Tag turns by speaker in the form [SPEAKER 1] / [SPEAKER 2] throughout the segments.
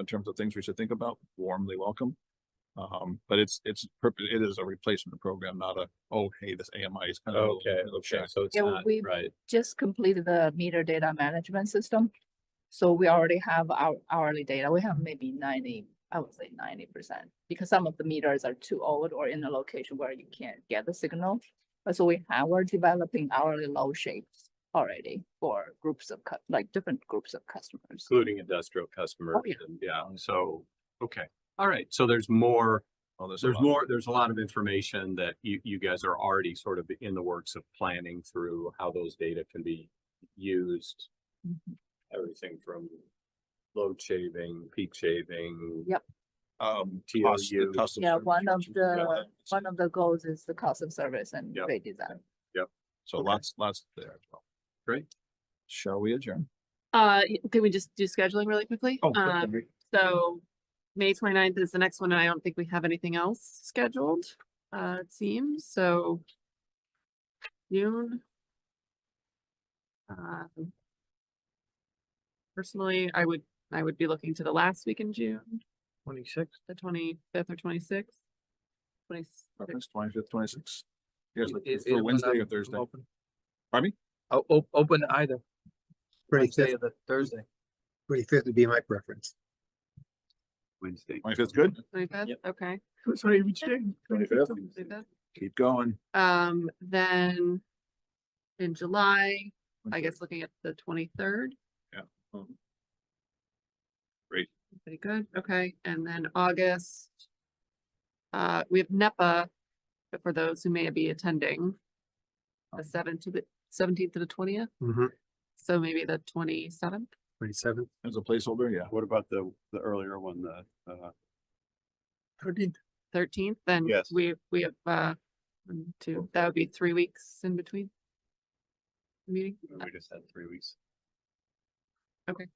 [SPEAKER 1] in terms of things we should think about, warmly welcome. Um, but it's, it's, perp- it is a replacement program, not a, oh, hey, this AMI is. kind of a little
[SPEAKER 2] Oh, Okay,
[SPEAKER 1] bit of a
[SPEAKER 2] okay,
[SPEAKER 1] check."
[SPEAKER 2] so it's
[SPEAKER 3] Yeah,
[SPEAKER 2] not,
[SPEAKER 3] we-
[SPEAKER 2] right,
[SPEAKER 3] just completed the meter data management system. So we already have our hourly data. We have maybe ninety, I would say ninety percent, because some of the meters are too old or in a location where you can't get the signal. But so we have, we're developing hourly load shapes already for groups of, cu- like different groups of customers.
[SPEAKER 2] including industrial customers,
[SPEAKER 3] yeah.
[SPEAKER 2] and yeah, so, okay. All right, so there's more,
[SPEAKER 1] Oh, a
[SPEAKER 2] there's
[SPEAKER 1] lot.
[SPEAKER 2] more, there's a lot of information that you, you guys are already sort of in the works of planning through how those data can be used.
[SPEAKER 3] Mhm.
[SPEAKER 2] Everything from load shaving, peak shaving.
[SPEAKER 3] Yep.
[SPEAKER 1] Um,
[SPEAKER 2] TLU.
[SPEAKER 1] cost- the cost of
[SPEAKER 3] Yeah,
[SPEAKER 1] service
[SPEAKER 3] one of
[SPEAKER 1] charge.
[SPEAKER 3] the, one of the goals is the cost of service and
[SPEAKER 2] Yep.
[SPEAKER 3] redesign.
[SPEAKER 1] So
[SPEAKER 2] okay.
[SPEAKER 1] lots, lots there as well.
[SPEAKER 2] Great.
[SPEAKER 1] Shall we adjourn?
[SPEAKER 4] Uh, y- can we just do scheduling really quickly?
[SPEAKER 1] Oh, good,
[SPEAKER 4] Um,
[SPEAKER 1] great.
[SPEAKER 4] so May 29th is the next one, and I don't think we have anything else scheduled, uh, it seems, so. June. Um, Personally, I would, I would be looking to the last week in June,
[SPEAKER 5] Twenty-six?
[SPEAKER 4] the twenty-fifth or twenty-sixth. Twenty-sixth,
[SPEAKER 1] August 25th, 26th. You guys
[SPEAKER 5] It-
[SPEAKER 1] look
[SPEAKER 5] it-
[SPEAKER 1] for
[SPEAKER 5] it-
[SPEAKER 1] Wednesday
[SPEAKER 5] I'm-
[SPEAKER 1] or
[SPEAKER 5] I'm
[SPEAKER 1] Thursday?
[SPEAKER 5] open.
[SPEAKER 1] Pardon me?
[SPEAKER 5] Oh, o- open either. Wednesday
[SPEAKER 6] fifth.
[SPEAKER 5] or the Thursday.
[SPEAKER 6] Twenty-fifth would be my preference.
[SPEAKER 2] Wednesday.
[SPEAKER 1] Twenty-fifth, good?
[SPEAKER 4] twenty-fifth, okay.
[SPEAKER 5] Sorry, we
[SPEAKER 1] Twenty-fifth.
[SPEAKER 4] 25th.
[SPEAKER 1] Keep going.
[SPEAKER 4] Um, then in July, I guess looking at the twenty-third.
[SPEAKER 1] Um,
[SPEAKER 4] Pretty good, okay, and then August. Uh, we have NEPA, but for those who may be attending. The seventh to the seventeenth to the twentieth,
[SPEAKER 6] Mm-hmm.
[SPEAKER 4] so maybe the twenty-seventh,
[SPEAKER 6] Twenty-seventh.
[SPEAKER 1] As a placeholder, yeah.
[SPEAKER 2] What about the, the earlier one, the, uh,
[SPEAKER 4] thirteenth, then
[SPEAKER 2] Yes.
[SPEAKER 4] we, we have, uh. one, Two, that would be three weeks in between. the Meeting,
[SPEAKER 2] we just had three weeks?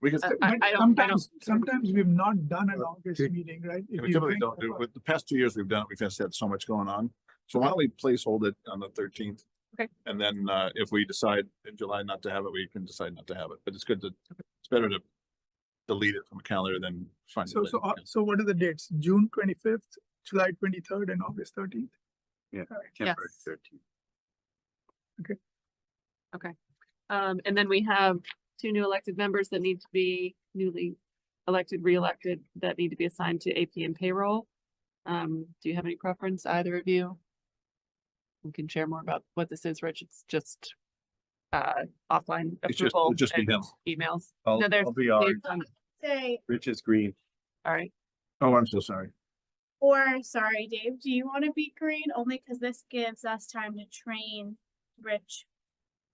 [SPEAKER 1] We can,
[SPEAKER 4] Uh,
[SPEAKER 1] we
[SPEAKER 4] I-
[SPEAKER 7] But
[SPEAKER 4] I don't- I don't-
[SPEAKER 7] sometimes, sometimes we've not done an
[SPEAKER 6] Uh,
[SPEAKER 7] August
[SPEAKER 6] dude,
[SPEAKER 7] meeting, right? If you
[SPEAKER 1] typically
[SPEAKER 7] think
[SPEAKER 1] don't do,
[SPEAKER 7] about-
[SPEAKER 1] but the past two years we've done, it, we've just had so much going on. So why don't we placehold it on the thirteenth?
[SPEAKER 4] Okay.
[SPEAKER 1] And then, uh, if we decide in July not to have it, we can decide not to have it, but it's good to, it's better to delete it from a calendar than find it
[SPEAKER 7] So, so, uh,
[SPEAKER 1] later.
[SPEAKER 7] so what are the dates? June twenty-fifth, July twenty-third and August thirteenth?
[SPEAKER 4] yes.
[SPEAKER 7] Okay.
[SPEAKER 4] Okay, um, and then we have two new elected members that need to be newly elected, re-elected, that need to be assigned to AP and payroll. Um, do you have any preference, either of you? We can share more about what this is, Rich, it's just uh, offline
[SPEAKER 1] It's just-
[SPEAKER 4] approval
[SPEAKER 1] it'll just be
[SPEAKER 4] and
[SPEAKER 1] him.
[SPEAKER 4] emails.
[SPEAKER 2] I'll,
[SPEAKER 4] No, there's-
[SPEAKER 2] I'll be ours.
[SPEAKER 4] There's, um,
[SPEAKER 8] say,
[SPEAKER 2] Rich is green.
[SPEAKER 4] All right,
[SPEAKER 1] Oh, I'm so sorry.
[SPEAKER 8] or sorry, Dave, do you want to be green? Only because this gives us time to train Rich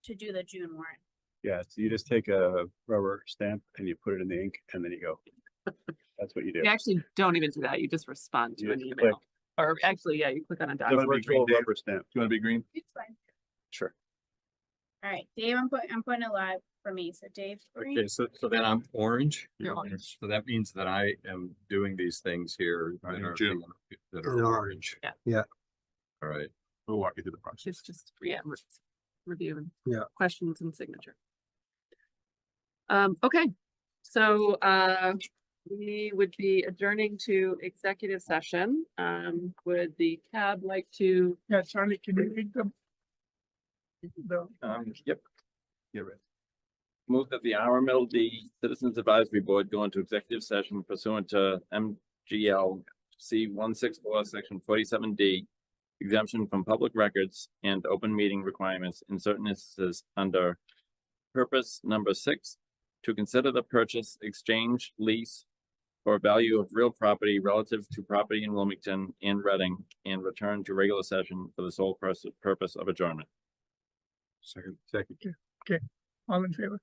[SPEAKER 8] to do the June warrant.
[SPEAKER 2] Yeah, so you just take a rubber stamp and you put it in the ink and then you go. That's what you do.
[SPEAKER 4] you actually don't even do that, you just respond
[SPEAKER 2] You
[SPEAKER 4] to an
[SPEAKER 2] just
[SPEAKER 4] email. Or actually, yeah, you click on a
[SPEAKER 1] Do you
[SPEAKER 4] document.
[SPEAKER 1] wanna be green, Dave? Do
[SPEAKER 2] stamp.
[SPEAKER 1] you wanna be green?
[SPEAKER 8] It's fine.
[SPEAKER 2] Sure.
[SPEAKER 8] All right, Dave, I'm putting, I'm putting a live for me, so Dave. green.
[SPEAKER 2] Okay, so, so then I'm orange.
[SPEAKER 4] You're
[SPEAKER 2] Yeah.
[SPEAKER 4] orange.
[SPEAKER 2] So that means that I am doing these things here. that
[SPEAKER 1] Right, in
[SPEAKER 2] are-
[SPEAKER 1] June.
[SPEAKER 2] That
[SPEAKER 6] In
[SPEAKER 2] are orange.
[SPEAKER 4] Yeah.
[SPEAKER 6] Yeah.
[SPEAKER 2] All right.
[SPEAKER 1] We'll walk you through the process.
[SPEAKER 4] It's just, yeah, re- review and
[SPEAKER 6] Yeah.
[SPEAKER 4] questions and signature. Um, okay, so, uh, we would be adjourning to executive session. Um, would the cab like to,
[SPEAKER 7] Yeah, Charlie, can you read them? The,
[SPEAKER 5] Um, yep. Get ready. Move that the RMLD Citizens Advisory Board go into executive session pursuant to MGL C one six four, section forty-seven D. Exemption from public records and open meeting requirements in certain instances under purpose number six. To consider the purchase, exchange, lease, or value of real property relative to property in Wilmington and Reading and return to regular session for the sole pers- purpose of adjournment.
[SPEAKER 2] Second, second,
[SPEAKER 7] all in favor?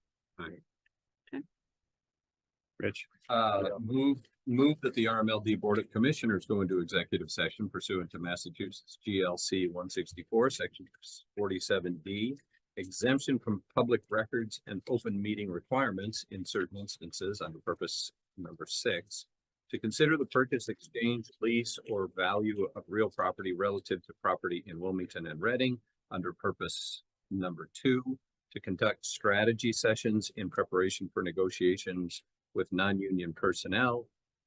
[SPEAKER 2] Rich. Uh, move, move that the RMLD Board of Commissioners go into executive session pursuant to Massachusetts GLC one sixty-four, section forty-seven D. Exemption from public records and open meeting requirements in certain instances under purpose number six. To consider the purchase, exchange, lease, or value of real property relative to property in Wilmington and Reading under purpose number two. To conduct strategy sessions in preparation for negotiations with non-union personnel